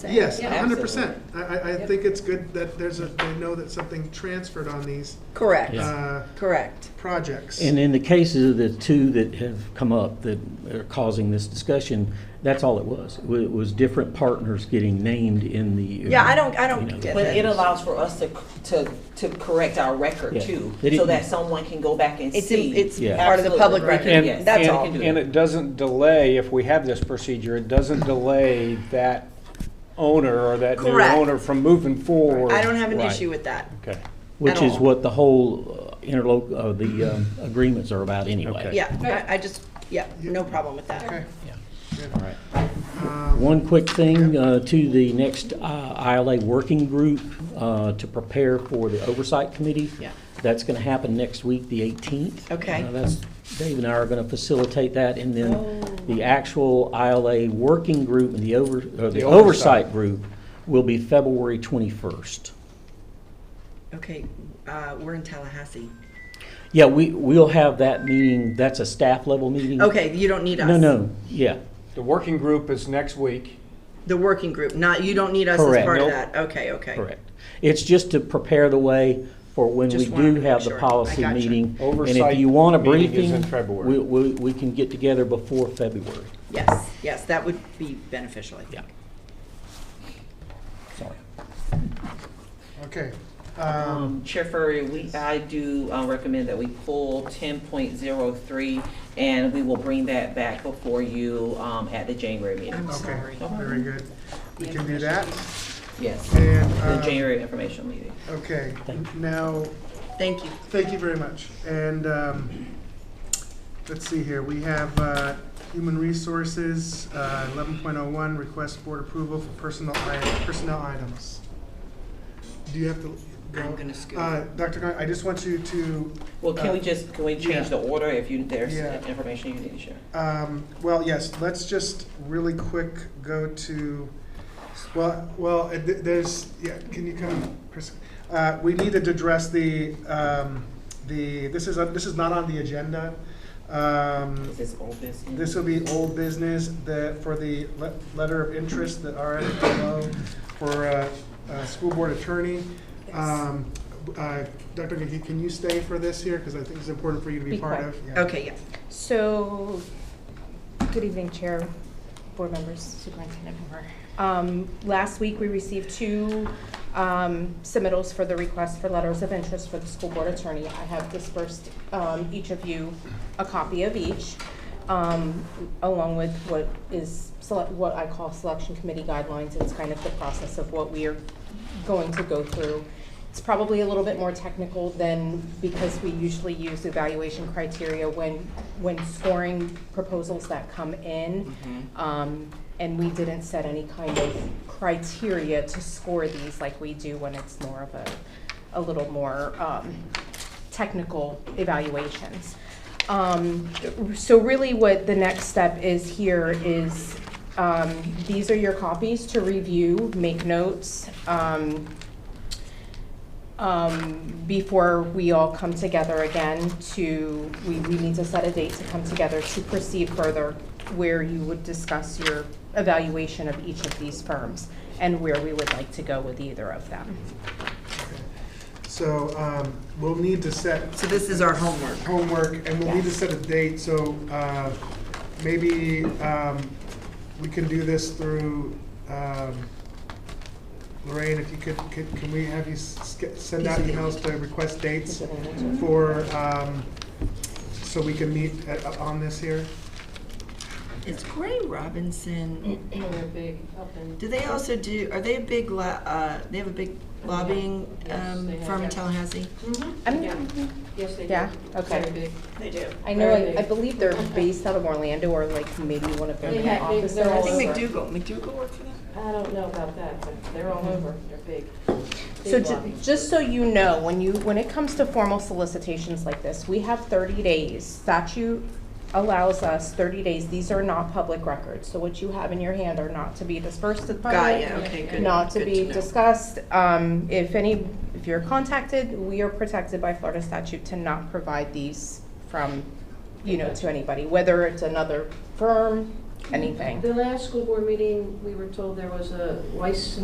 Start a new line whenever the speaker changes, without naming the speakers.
say.
Yes,
Yeah.
hundred percent. I, I, I
Yep.
think it's good that there's a, they know that something transferred on these,
Correct,
Yeah.
uh,
correct.
projects.
And in the cases of the two that have come up that are causing this discussion, that's all it was. It wa- It was different partners getting named in the.
Yeah, I don't, I don't
You know.
get
But it
that.
allows for us to, to, to correct our record
Yeah.
too,
They
so
didn't-
that someone can go back and
It's,
see.
in- it's
Yeah.
part of the
Absolutely.
public
Right.
record,
Yes.
that's
and-
all.
And it doesn't delay, if we have this procedure, it doesn't delay that owner or that new
Correct.
owner from moving forward.
I don't have an
Right.
issue with that.
Okay.
Which
at
is
all.
what the whole uh, interloc, uh, the um, agreements are about anyway.
Okay.
Yeah, I, I just, yeah, no problem with that.
Okay. um,
All right. One quick thing uh, to the next uh, ILA working group uh, to prepare for the oversight committee.
Yeah.
That's going to happen next week, the 18th.
Okay. Oh.
Uh, That's, Dave and I are going to facilitate that, and then the actual ILA working group and the over, or the
The
oversight
oversight.
group will be February 21st.
Okay, uh, we're in Tallahassee.
Yeah, we, we'll have that meeting, that's a staff level meeting.
Okay, you don't need us.
No, no, yeah,
The working group is next week.
The working group, not, you don't need us as
Correct.
part of
Nope.
that. Okay, okay.
correct. It's just to prepare the way for when we
Just wanted
do
to
have
make
the
sure.
policy
I gotcha.
meeting. And
Oversight
if you want a
meeting is
briefing,
in February.
we, we, we can get together before February.
Yes, yes, that would be beneficial, I
Yeah.
think.
Sorry.
Okay. Um,
Um, Chair Furrier, we, I do uh, recommend that we pull ten point zero three, and we will bring that back before you, um, at the January meeting.
okay, very good. We can do that.
Yes,
And,
the
uh,
January informational meeting.
okay, now,
Thank you.
thank you very much. And, um, let's see here, we have, uh, Human Resources, uh, eleven point oh one, request board approval for personal, i- personnel items. Do you have to? go?
I'm gonna scoot.
Uh, Dr. Gon, I just want you to
Well, can we
uh,
just, can we
yeah.
change the order if you, there's
Yeah.
information you need to share?
Um, well, yes, let's just really quick go to, well, well, uh, th- there's, yeah, can you come, Chris? Uh, we needed to address the, um, the, this is, uh, this is not on the agenda. Um,
Is this old business?
this will be old business, the, for the le- letter of interest, the RFMO for, uh, uh, school board attorney. Um, uh, Dr. McGee, can you stay for this here? Because I think it's important for you to be
Be
part
quiet.
of. Yeah.
Okay, yeah.
So, good evening, Chair, board members, Superintendent Hoover. Um, Last week, we received two um, submittals for the request for letters of interest for the school board attorney. I have dispersed um, each of you a copy of each, um, along with what is, sele- what I call selection committee guidelines. It's kind of the process of what we are going to go through. It's probably a little bit more technical than, because we usually use evaluation criteria when, when scoring proposals that come in. Um, And we didn't set any kind of criteria to score these like we do when it's more of a, a little more um, technical evaluations. Um, So really what the next step is here is, um, these are your copies to review, make notes, um, um, before we all come together again to, we, we need to set a date to come together to proceed further where you would discuss your evaluation of each of these firms and where we would like to go with either of them.
So um, we'll need to set
So this is our homework.
homework, and we'll need to set a date, so uh, maybe um, we can do this through, um, Lorraine, if you could, could- can we have you s- sk- send out emails to request dates for, um, so we can meet at- on this here?
Is Gray Robinson? Do they also do? Are they a big? Lo- uh, they have a big lobbying um, firm in Tallahassee.
I'm-
Mm-hmm. Yes, they do.
Yeah, okay.
They do.
I know, I I believe they're based out of Orlando or like maybe one of their
They
main
have- they-
offices.
they're all
I think
over.
McDougal. McDougal worked for them.
I don't know about that, but they're all over, they're big.
So
Big
ju-
lobby.
just so you know, when you, when it comes to formal solicitations like this, we have thirty days. Statute allows us thirty days. These are not public records, so what you have in your hand are not to be dispersed to the
Got
public.
ya, Okay, good.
Not to
good
be
know.
discussed. Um, if any, if you're contacted, we are protected by Florida statute to not provide these from, you know, to anybody, whether it's another firm, anything.
The last school board meeting, we were told there was a license